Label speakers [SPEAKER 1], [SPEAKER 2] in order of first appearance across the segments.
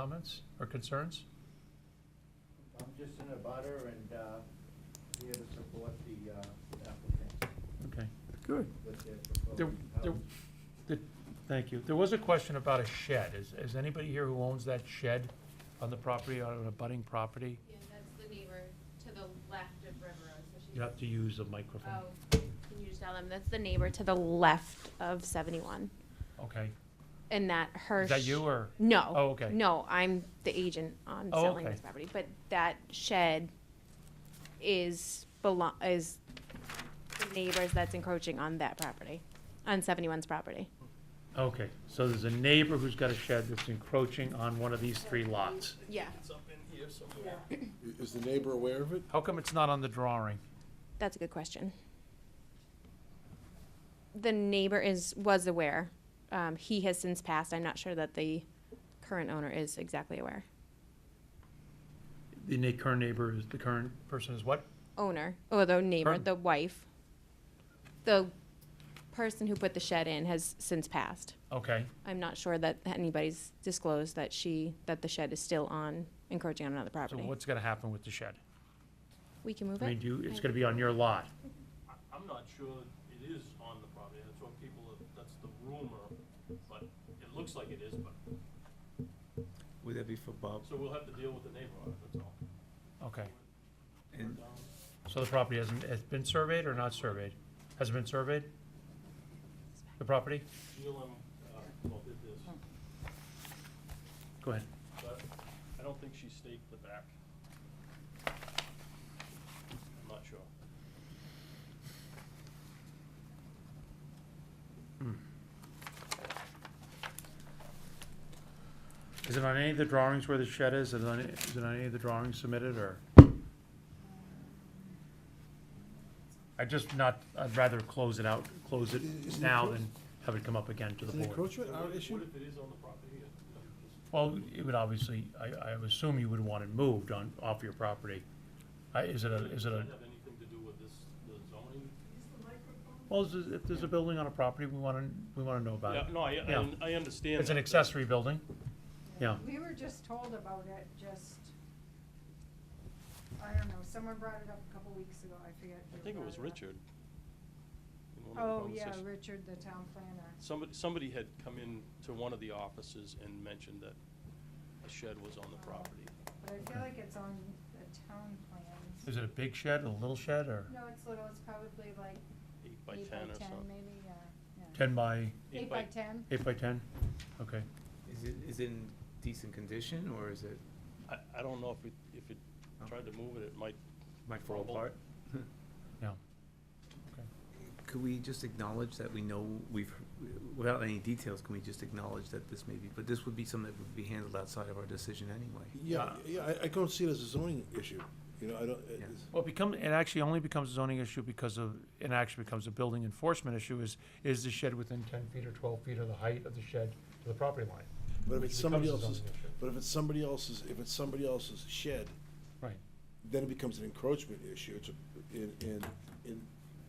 [SPEAKER 1] comments or concerns?
[SPEAKER 2] I'm just in a butter and uh, here to support the uh, applicant
[SPEAKER 1] Okay.
[SPEAKER 3] Good.
[SPEAKER 2] with their
[SPEAKER 1] There,
[SPEAKER 2] proposed
[SPEAKER 1] there,
[SPEAKER 2] house.
[SPEAKER 1] the- thank you. There was a question about a shed. Is, is anybody here who owns that shed on the property, on an abutting property?
[SPEAKER 4] Yeah, that's the neighbor to the left of River Road, so she's.
[SPEAKER 1] You have to use a microphone.
[SPEAKER 4] Oh, can you just tell them, that's the neighbor to the left of seventy-one,
[SPEAKER 1] Okay.
[SPEAKER 4] and that her.
[SPEAKER 1] Is that
[SPEAKER 4] sh-
[SPEAKER 1] you or?
[SPEAKER 4] No.
[SPEAKER 1] Oh, okay.
[SPEAKER 4] No, I'm the agent on
[SPEAKER 1] Oh,
[SPEAKER 4] selling
[SPEAKER 1] okay.
[SPEAKER 4] this property, but that shed is belong, is the neighbors that's encroaching on that property, on 71's property.
[SPEAKER 1] Okay, so there's a neighbor who's got a shed that's encroaching on one of these three lots.
[SPEAKER 4] Yeah,
[SPEAKER 5] Is the neighbor aware of it?
[SPEAKER 1] How come it's not on the drawing?
[SPEAKER 4] that's a good question. The neighbor is, was aware. Um, he has since passed. I'm not sure that the current owner is exactly aware.
[SPEAKER 1] The na- current neighbor is, the current person is what?
[SPEAKER 4] owner, or the neighbor,
[SPEAKER 1] Pardon?
[SPEAKER 4] the wife, the person who put the shed in has since passed.
[SPEAKER 1] Okay,
[SPEAKER 4] I'm not sure that anybody's disclosed that she, that the shed is still on, encroaching on another
[SPEAKER 1] so
[SPEAKER 4] property.
[SPEAKER 1] what's gonna happen with the shed?
[SPEAKER 4] We can move
[SPEAKER 1] I mean,
[SPEAKER 4] it?
[SPEAKER 1] do you, it's gonna be on your lot?
[SPEAKER 6] I- I'm not sure it is on the property, that's what people, have- that's the rumor, but it looks like it is, but,
[SPEAKER 3] Would that be for Bob?
[SPEAKER 6] so we'll have to deal with the neighbor on it, that's all. Um,
[SPEAKER 1] Okay,
[SPEAKER 3] And
[SPEAKER 1] so the property hasn't, has been surveyed or not surveyed? Has it been surveyed? The property?
[SPEAKER 6] Sheila, uh, well, did this,
[SPEAKER 1] Go ahead.
[SPEAKER 6] but I don't think she staked the back. I'm not sure.
[SPEAKER 1] Is it on any of the drawings where the shed is? Is it on, is it on any of the drawings submitted, or? I just not, I'd rather close it out, close it
[SPEAKER 5] Is- is it
[SPEAKER 1] now
[SPEAKER 5] closed?
[SPEAKER 1] than have it come up again to the
[SPEAKER 5] Is an
[SPEAKER 1] board.
[SPEAKER 5] encroachment
[SPEAKER 6] What
[SPEAKER 5] our
[SPEAKER 6] if- What
[SPEAKER 5] issue?
[SPEAKER 6] if it is on the property? It- it just-
[SPEAKER 1] Well, it would obviously, I, I would assume you would want it moved on, off your property. I- Uh, Is it a, is it a,
[SPEAKER 6] Does that have anything to do with this, the zoning?
[SPEAKER 1] well, is it- if there's a building on a property, we want to, we want to know about it.
[SPEAKER 6] Yeah, no, I,
[SPEAKER 1] Yeah.
[SPEAKER 6] I, I understand.
[SPEAKER 1] It's an
[SPEAKER 6] that, but-
[SPEAKER 1] accessory building, yeah.
[SPEAKER 7] We were just told about it, just, I don't know, someone brought it up a couple weeks ago, I forget.
[SPEAKER 6] I
[SPEAKER 7] who
[SPEAKER 6] think it
[SPEAKER 7] brought
[SPEAKER 6] was
[SPEAKER 7] up.
[SPEAKER 6] Richard. in one of the
[SPEAKER 7] Oh, yeah,
[SPEAKER 6] conversations.
[SPEAKER 7] Richard, the town planner.
[SPEAKER 6] Somebody, somebody had come in to one of the offices and mentioned that a shed was on the property.
[SPEAKER 7] But I feel like it's on the town plans.
[SPEAKER 1] Is it a big shed, a little shed, or
[SPEAKER 7] No, it's little, it's probably like
[SPEAKER 6] Eight by
[SPEAKER 7] eight
[SPEAKER 6] ten or
[SPEAKER 7] by ten,
[SPEAKER 6] something.
[SPEAKER 7] maybe, yeah, yeah.
[SPEAKER 1] ten by,
[SPEAKER 7] Eight by ten?
[SPEAKER 1] eight by ten? Okay.
[SPEAKER 3] is it, is it in decent condition or is it,
[SPEAKER 6] I, I don't know if it, if it tried to move it, it might.
[SPEAKER 3] might fall
[SPEAKER 6] Rubble.
[SPEAKER 3] apart?
[SPEAKER 1] Yeah.
[SPEAKER 3] Could we just acknowledge that we know we've, without any details, can we just acknowledge that this may be, but this would be something that would be handled outside of our decision anyway?
[SPEAKER 5] Yeah, yeah, I, I don't see it as a zoning issue, you know, I don't,
[SPEAKER 3] Yeah.
[SPEAKER 5] it's-
[SPEAKER 1] Well, it become, it actually only becomes a zoning issue because of, it actually becomes a building enforcement issue is, is the shed within ten feet or twelve feet of the height of the shed to the property line?
[SPEAKER 5] but if
[SPEAKER 1] which
[SPEAKER 5] it's somebody
[SPEAKER 1] becomes a
[SPEAKER 5] else's,
[SPEAKER 1] zoning issue.
[SPEAKER 5] but if it's somebody else's, if it's somebody else's shed,
[SPEAKER 1] Right.
[SPEAKER 5] then it becomes an encroachment issue, it's, a- in, in, in,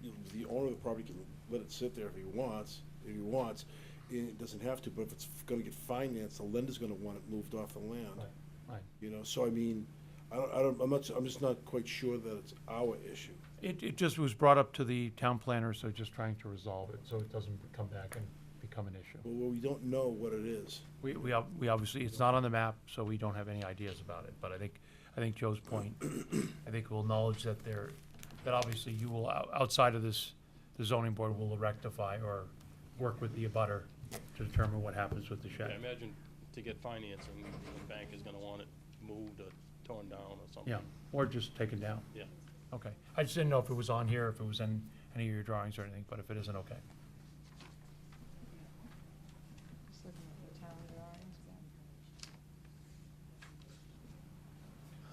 [SPEAKER 5] you know, the owner of the property can let it sit there if he wants, if he wants, it doesn't have to, but if it's gonna get financed, the lender's gonna want it moved off the land.
[SPEAKER 1] Right, right.
[SPEAKER 5] You know, so I mean, I don't, I don't, I'm not, I'm just not quite sure that it's our issue.
[SPEAKER 1] It, it just was brought up to the town planner, so just trying to resolve it, so it doesn't come back and become an issue.
[SPEAKER 5] Well, we don't know what it is.
[SPEAKER 1] We, we, ob- we obviously, it's not on the map, so we don't have any ideas about it, but I think, I think Joe's point, I think we'll acknowledge that there, that obviously you will, ou- outside of this, the zoning board will rectify or work with the abutter to determine what happens with the
[SPEAKER 6] Yeah,
[SPEAKER 1] shed.
[SPEAKER 6] imagine to get financing, the bank is gonna want it moved or torn down or something.
[SPEAKER 1] Yeah, or just taken down,
[SPEAKER 6] Yeah.
[SPEAKER 1] okay. I just didn't know if it was on here, if it was in any of your drawings or anything, but if it isn't, okay.
[SPEAKER 7] Just looking at the town drawings,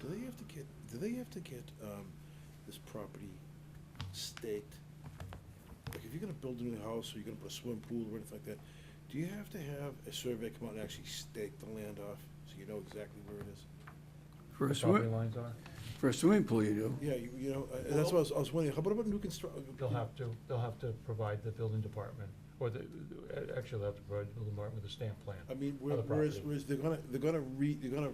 [SPEAKER 7] yeah.
[SPEAKER 5] Do they have to get, do they have to get, um, this property staked? Like, if you're gonna build a new house, or you're gonna put a swimming pool or anything like that, do you have to have a survey come out and actually stake the land off, so you know exactly where it is?
[SPEAKER 8] For a
[SPEAKER 1] Property
[SPEAKER 8] swimming,
[SPEAKER 1] lines are,
[SPEAKER 8] for a swimming pool, you do.
[SPEAKER 5] Yeah, you, you know, uh, that's what I was, I was wondering, how about, about new construction?
[SPEAKER 1] they'll have to, they'll have to provide the building department Or the, actually, they'll have to provide Bill Martin with a stamp plan.
[SPEAKER 5] I mean,
[SPEAKER 1] On the
[SPEAKER 5] whereas,
[SPEAKER 1] property.
[SPEAKER 5] whereas they're gonna, they're gonna re, they're gonna